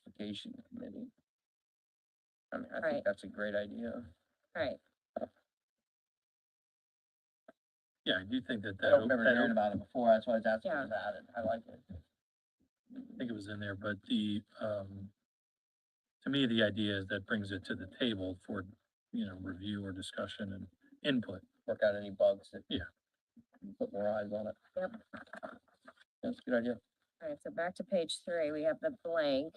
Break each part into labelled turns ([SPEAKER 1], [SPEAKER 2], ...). [SPEAKER 1] classification committee. I mean, I
[SPEAKER 2] Right.
[SPEAKER 1] think that's a great idea.
[SPEAKER 2] Right,
[SPEAKER 3] Yeah, I do think that
[SPEAKER 1] I
[SPEAKER 3] that,
[SPEAKER 1] don't
[SPEAKER 3] o-
[SPEAKER 1] remember
[SPEAKER 3] that
[SPEAKER 1] hearing
[SPEAKER 3] o-
[SPEAKER 1] about it before, that's why I was asking
[SPEAKER 2] Yeah.
[SPEAKER 1] about it, I like it.
[SPEAKER 3] I think it was in there, but the, um, to me, the idea is that brings it to the table for, you know, review or discussion and input.
[SPEAKER 1] Work out any bugs that.
[SPEAKER 3] Yeah.
[SPEAKER 1] Put more eyes on it.
[SPEAKER 2] Yep.
[SPEAKER 1] That's a good idea,
[SPEAKER 2] alright, so back to page three, we have the blank.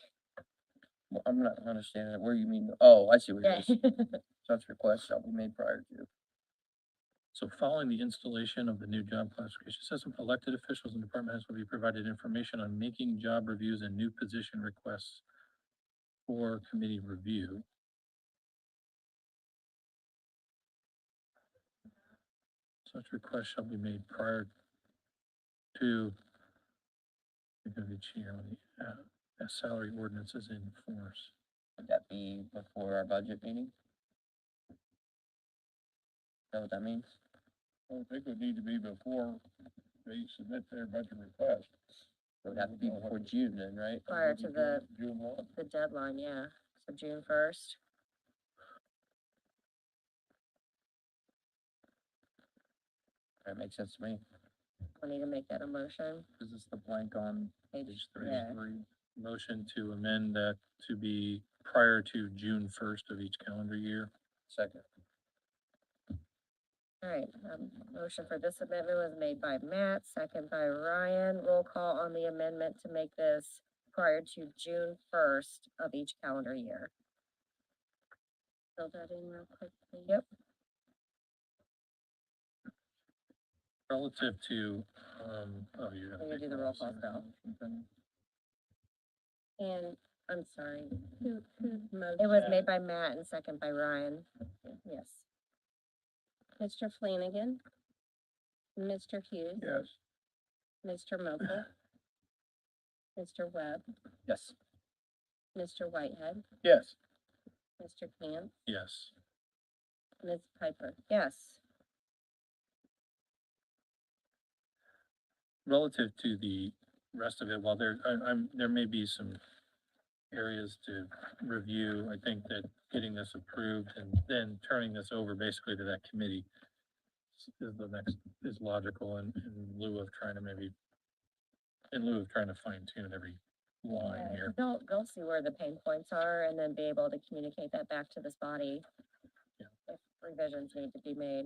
[SPEAKER 1] Well, I'm not understanding it, where you mean, oh, I see what it
[SPEAKER 2] Yeah,
[SPEAKER 1] is, such requests shall be made prior to.
[SPEAKER 3] So following the installation of the new job classification system, elected officials and department heads will be provided information on making job reviews and new position requests for committee review. Such requests shall be made prior to of each year when the, uh, as salary ordinance is in force.
[SPEAKER 1] Would that be before our budget meeting? Is that what that means? I think it would need to be before they submit their budget request. It would have to be before June then, right?
[SPEAKER 2] Prior to the-
[SPEAKER 1] June one.
[SPEAKER 2] The deadline, yeah, so June first.
[SPEAKER 1] That makes sense to me.
[SPEAKER 2] We need to make that a motion.
[SPEAKER 3] Is this the blank on
[SPEAKER 2] Page
[SPEAKER 3] Page three.
[SPEAKER 2] yeah.
[SPEAKER 3] Motion to amend that to be prior to June first of each calendar year.
[SPEAKER 1] Second.
[SPEAKER 2] Alright, um, motion for this amendment was made by Matt, second by Ryan. Roll call on the amendment to make this prior to June first of each calendar year. Fill that in real quick. please. Yep,
[SPEAKER 3] Relative to, um, oh, you have.
[SPEAKER 2] We're gonna do the roll call now. and I'm sorry,
[SPEAKER 4] Who, whose motion?
[SPEAKER 2] it was made by Matt and second by Ryan. Yes.
[SPEAKER 4] Mr. Flanagan. Mr. Hughes.
[SPEAKER 1] Yes.
[SPEAKER 4] Mr. Mokel. Mr. Webb.
[SPEAKER 1] Yes.
[SPEAKER 4] Mr. Whitehead.
[SPEAKER 1] Yes.
[SPEAKER 4] Mr. Cant.
[SPEAKER 3] Yes,
[SPEAKER 4] Ms. Piper.
[SPEAKER 2] Yes.
[SPEAKER 3] relative to the rest of it, while there, I, I'm, there may be some areas to review, I think that getting this approved and then turning this over basically to that committee s- is the next, is logical in, in lieu of trying to maybe, in lieu of trying to fine tune every line
[SPEAKER 2] Yeah,
[SPEAKER 3] here.
[SPEAKER 2] They'll, they'll see where the pain points are and then be able to communicate that back to this body.
[SPEAKER 3] Yeah.
[SPEAKER 2] If revisions need to be made.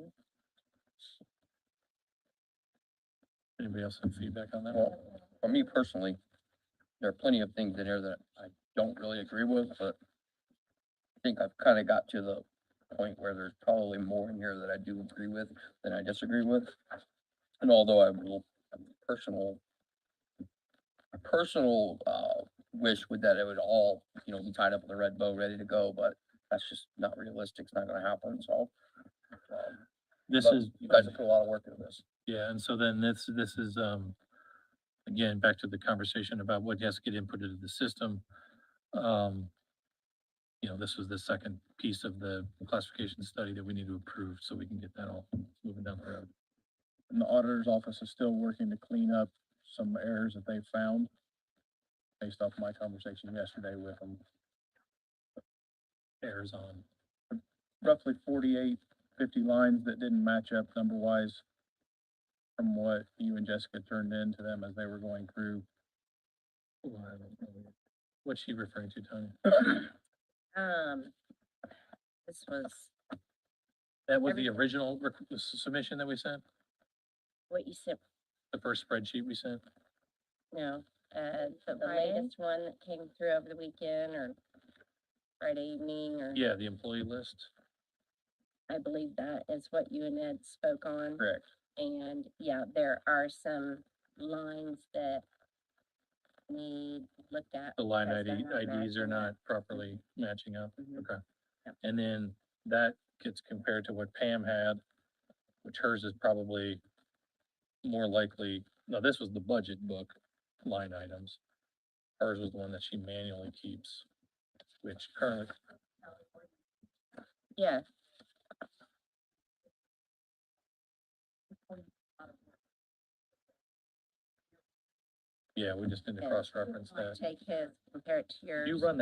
[SPEAKER 3] Anybody else have feedback on that?
[SPEAKER 1] Well, for me personally, there are plenty of things in here that I don't really agree with, but I think I've kind of got to the point where there's probably more in here that I do agree with than I disagree with. And although I will, personal, a personal, uh, wish would that it would all, you know, be tied up with a red bow, ready to go, but that's just not realistic. It's not gonna happen, so. um,
[SPEAKER 3] This
[SPEAKER 1] but
[SPEAKER 3] is,
[SPEAKER 1] You guys have put a lot of work into this.
[SPEAKER 3] yeah, and so then this, this is, um, again, back to the conversation about what has to get input into the system. Um, you know, this was the second piece of the classification study that we need to approve, so we can get that all moving down the road.
[SPEAKER 5] And the auditor's office is still working to clean up some errors that they found based off my conversation yesterday with them.
[SPEAKER 3] Errors on,
[SPEAKER 5] Roughly 48, 50 lines that didn't match up number-wise from what you and Jessica turned in to them as they were going through.
[SPEAKER 3] oh, I don't know. what's she referring to, Tony?
[SPEAKER 2] Um, this was
[SPEAKER 3] That was the
[SPEAKER 2] Everything.
[SPEAKER 3] original requ- s- submission that we sent,
[SPEAKER 2] what you said,
[SPEAKER 3] the first spreadsheet we sent?
[SPEAKER 4] No, uh, the the
[SPEAKER 2] Friday?
[SPEAKER 4] latest one that came through over the weekend or Friday evening
[SPEAKER 2] Mm-hmm.
[SPEAKER 4] or
[SPEAKER 3] Yeah, the employee list.
[SPEAKER 4] I believe that is what you and Ed spoke on.
[SPEAKER 5] Correct.
[SPEAKER 4] And yeah, there are some lines that need looked at.
[SPEAKER 3] the line
[SPEAKER 4] because they're
[SPEAKER 3] ID,
[SPEAKER 4] not
[SPEAKER 3] IDs are
[SPEAKER 4] matching
[SPEAKER 3] not
[SPEAKER 4] up.
[SPEAKER 3] properly matching up,
[SPEAKER 4] Mhm.
[SPEAKER 3] okay.
[SPEAKER 4] Yep.
[SPEAKER 3] And then that gets compared to what Pam had, which hers is probably more likely, no, this was the budget book line items. Hers was the one that she manually keeps, which currently,
[SPEAKER 2] yeah. Yeah, we just need to
[SPEAKER 3] Yeah.
[SPEAKER 2] cross-reference that.
[SPEAKER 3] Take his, compare it to yours.
[SPEAKER 2] You run that